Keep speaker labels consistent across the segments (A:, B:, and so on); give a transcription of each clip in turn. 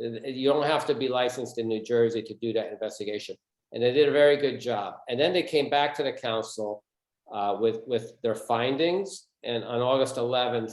A: Uh, You don't have to be licensed in New Jersey to do that investigation. And they did a very good job. And then they came back to the council uh, with, with their findings. And on August 11th,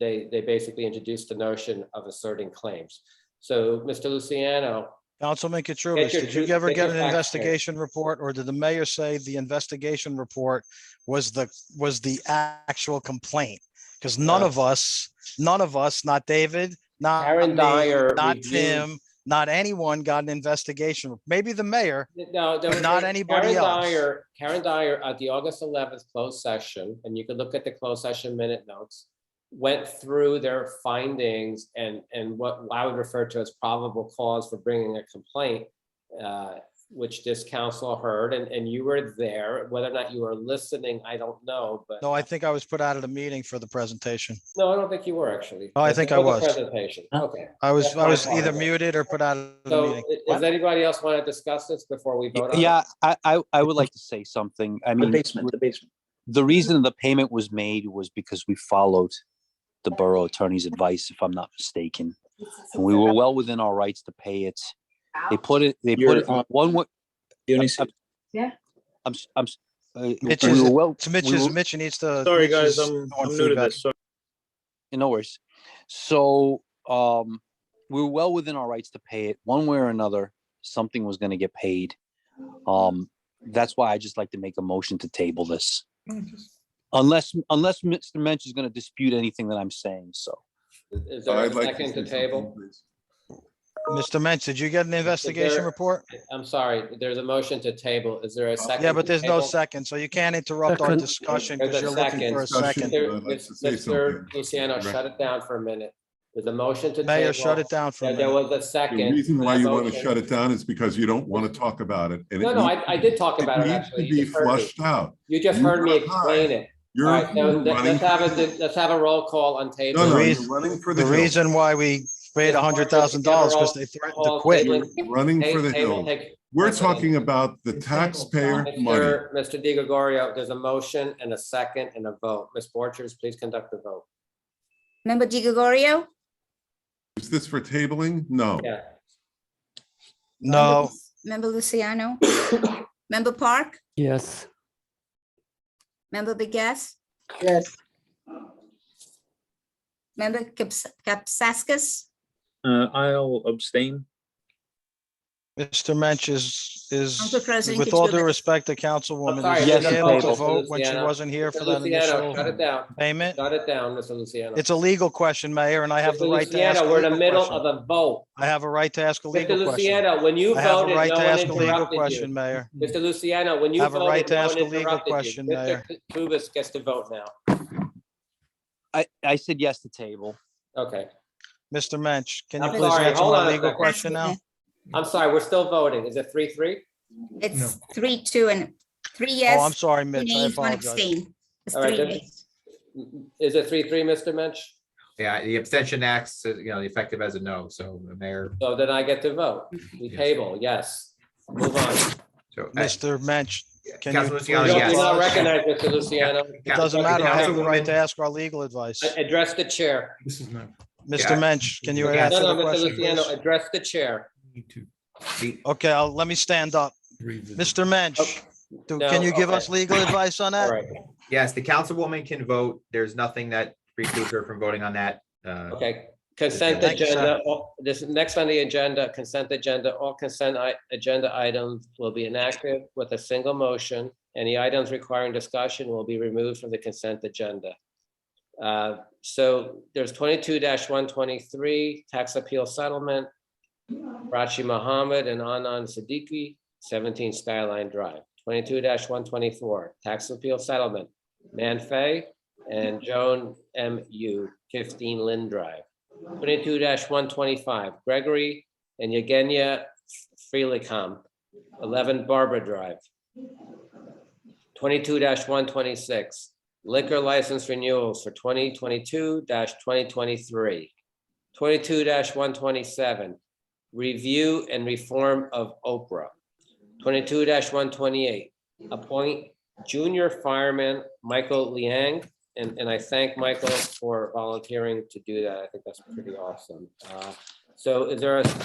A: they, they basically introduced the notion of asserting claims. So, Mr. Luciano,
B: Councilman Katrubis,
A: your
B: did you
A: truth-
B: ever
A: get your
B: get an
A: facts straight.
B: investigation report or did the mayor say the investigation report was the, was the actual complaint? Because none
A: No.
B: of us, none of us, not David, not
A: Karen
B: me,
A: Dyer
B: not
A: reviewed-
B: Tim, not anyone got an investigation. Maybe the mayor.
A: No, there
B: But
A: was
B: not
A: a-
B: anybody
A: Karen
B: else.
A: Dyer, Karen Dyer at the August eleventh closed session, and you can look at the closed session minute notes. Went through their findings and, and what I would refer to as probable cause for bringing a complaint. uh, Which this council heard, and, and you were there, whether or not you were listening, I don't know, but.
B: No, I think I was put out of the meeting for the presentation.
A: No, I don't think you were actually.
B: Oh, I think I
A: For the
B: was.
A: Presentation, okay.
B: I was,
A: That's
B: I
A: my
B: was
A: fault.
B: either muted or put out of the
A: So,
B: meeting.
A: i- does anybody else want to discuss this before we vote on? it?
C: Yeah, I, I, I would like to say something. I
D: The
E: Mm-hmm.
C: mean,
D: basement, the basement.
C: the reason the payment was made was because we followed the borough attorney's advice, if I'm not mistaken. And we were well within our rights to pay it. They put it, they put
D: You're
C: it,
D: on-
C: one, wa-
D: Dionysius.
C: I'm, s- I'm, s- uh,
B: Mitch
C: we
B: is-
C: were well.
B: It's Mitch's, Mitch needs to.
E: Sorry,
B: Mitch
E: guys,
B: is
E: I'm,
B: on
E: I'm new to
B: feedback.
E: this. Sorry.
C: No worries. So, um, we were well within our rights to pay it, one way or another, something was gonna get paid. Um, that's why I just like to make a motion to table this. Unless, unless Mr. Mensch is gonna dispute anything that I'm saying, so.
A: Is there a second to table?
B: Mr. Mensch, did you get an investigation
A: there-
B: report?
A: I'm sorry, there's a motion to table. Is there a second?
B: Yeah, but
A: to
B: there's no
A: table?
B: second, so you can't interrupt our discussion because
A: There's a
B: you're looking for a
A: second.
B: second.
A: There-
F: I'd like to say
A: Mr.
F: something.
A: Luciano, shut it down for a minute. There's a motion to. table.
B: Mayor, shut it down for a
A: There there
B: minute.
A: was a second.
F: The reason why
A: and a
F: you want to
A: motion.
F: shut it down is because you don't want to talk about it. and it
A: No, no,
F: needs-
A: I, I did talk about it,
F: needs to
A: actually.
F: be
A: You just heard me.
F: flushed out.
A: You just
F: You
A: heard me
F: were
A: explain it. All
F: You're
A: right, now,
F: you're
A: let-
F: running.
A: let's have a, let's have a roll call on table.
F: No, no,
B: reason-
F: you're running for the
B: The
F: hills.
B: reason why we paid
A: Yeah,
B: a hundred thousand dollars because
A: overall-
B: they threatened to
A: Call
B: quit.
A: tabling.
F: You're Running for
A: Ta-
F: the
A: table,
F: hills.
A: take-
F: We're
A: That's all.
F: talking about the taxpayer money.
A: Mr. Mr. Di Gregorio, there's a motion and a second and a vote. Ms. Borchers, please conduct the vote.
G: Member Di Gregorio?
F: Is this for tabling? No.
A: Yeah,
B: No,
G: Member Luciano? Member Park?
H: Yes.
G: Member Begas?
I: Yes,
G: Member Kaps- Kapsakis?
D: Uh, I'll abstain.
B: Mr. Mensch is, is,
G: Council President,
B: with
G: could
B: all
G: you-
B: due respect to Councilwoman,
A: sorry,
B: is
C: Yes,
B: she able to
C: Mr.
B: vote when she
A: Luciano.
B: wasn't here
A: Mr.
B: for that
A: Luciano, shut
B: initial
A: it down.
B: payment?
A: Shut it down, Mr. Luciano.
B: It's a legal question, Mayor, and I have
A: Mr.
B: the right to
A: Luciano,
B: ask a
A: We're in the
B: legal
A: middle
B: question.
A: of a vote.
B: I have a right to ask a
A: Mr.
B: legal question.
A: Luciano, when you
B: I have a
A: voted,
B: right
A: no
B: to
A: one
B: ask a legal
A: interrupted
B: question,
A: you.
B: Mayor.
A: Mr. Luciano, when you
B: I have a right
A: voted,
B: to
A: no
B: ask
A: one
B: a legal
A: interrupted you.
B: question,
A: Mr.
B: Mayor.
A: Kubus gets to vote now.
C: I, I said yes to table.
A: Okay.
B: Mr. Mensch, can you
A: I'm
B: please
A: sorry,
B: answer
A: hold on
B: my
A: a
B: legal
A: second.
B: question now?
A: I'm sorry, we're still voting. Is it three, three?
G: It's three, two, and three
B: Oh, I'm
G: yes,
B: sorry,
G: two
B: Mitch, I
G: nays, one
B: apologize.
G: abstain. It's
A: All right,
G: three
A: then-
G: nays.
A: Is it three, three, Mr. Mensch?
J: Yeah, the abstention acts, as, you know, effective as a no, so the mayor.
A: So then I get to vote. We
J: Yes.
A: table, yes. Move on.
B: Oh,
J: so, uh,
B: Mr. Mensch, can you
J: Councilman
B: please
J: Luciano,
A: You don't-
J: yes.
A: you don't
B: apologize?
A: recognize Mr. Luciano.
B: It doesn't matter. I have the right to
J: Councilwoman-
B: ask our legal advice.
A: Address the chair.
E: This is not.
B: Mr. Mensch, can you
J: No,
A: No,
B: answer
A: no, Mr.
B: the question?
A: Luciano,
B: please?
A: address the chair.
E: Need to
J: the-
B: Okay, I'll, let me stand up. Mr. Mensch, do- can
A: No,
B: you give
A: okay.
B: us legal advice on
A: All
B: that?
A: right,
J: Yes, the councilwoman can vote. There's nothing that precludes her from voting on that. Uh,
A: okay. Consent
B: Thank you, sir.
A: agenda, all- this next on the agenda, consent agenda, all consent i- agenda items will be inactive with a single motion. Any items requiring discussion will be removed from the consent agenda. Uh, So there's twenty-two one twenty-three, tax appeal settlement. Rachi Mohammed and Anan Siddiqui, seventeen Skyline Drive. Twenty-two one twenty-four, tax appeal settlement, Manfei and Joan M U, fifteen Lynn Drive. Twenty-two one twenty-five, Gregory and Yagenia Freelicom, eleven Barbara Drive. Twenty-two one twenty-six, liquor license renewals for twenty twenty-two twenty twenty-three. Twenty-two one twenty-seven, review and reform of Oprah. Twenty-two one twenty-eight, appoint junior fireman Michael Liang. And, and I thank Michael for volunteering to do that. I think that's pretty awesome. Uh, So is there a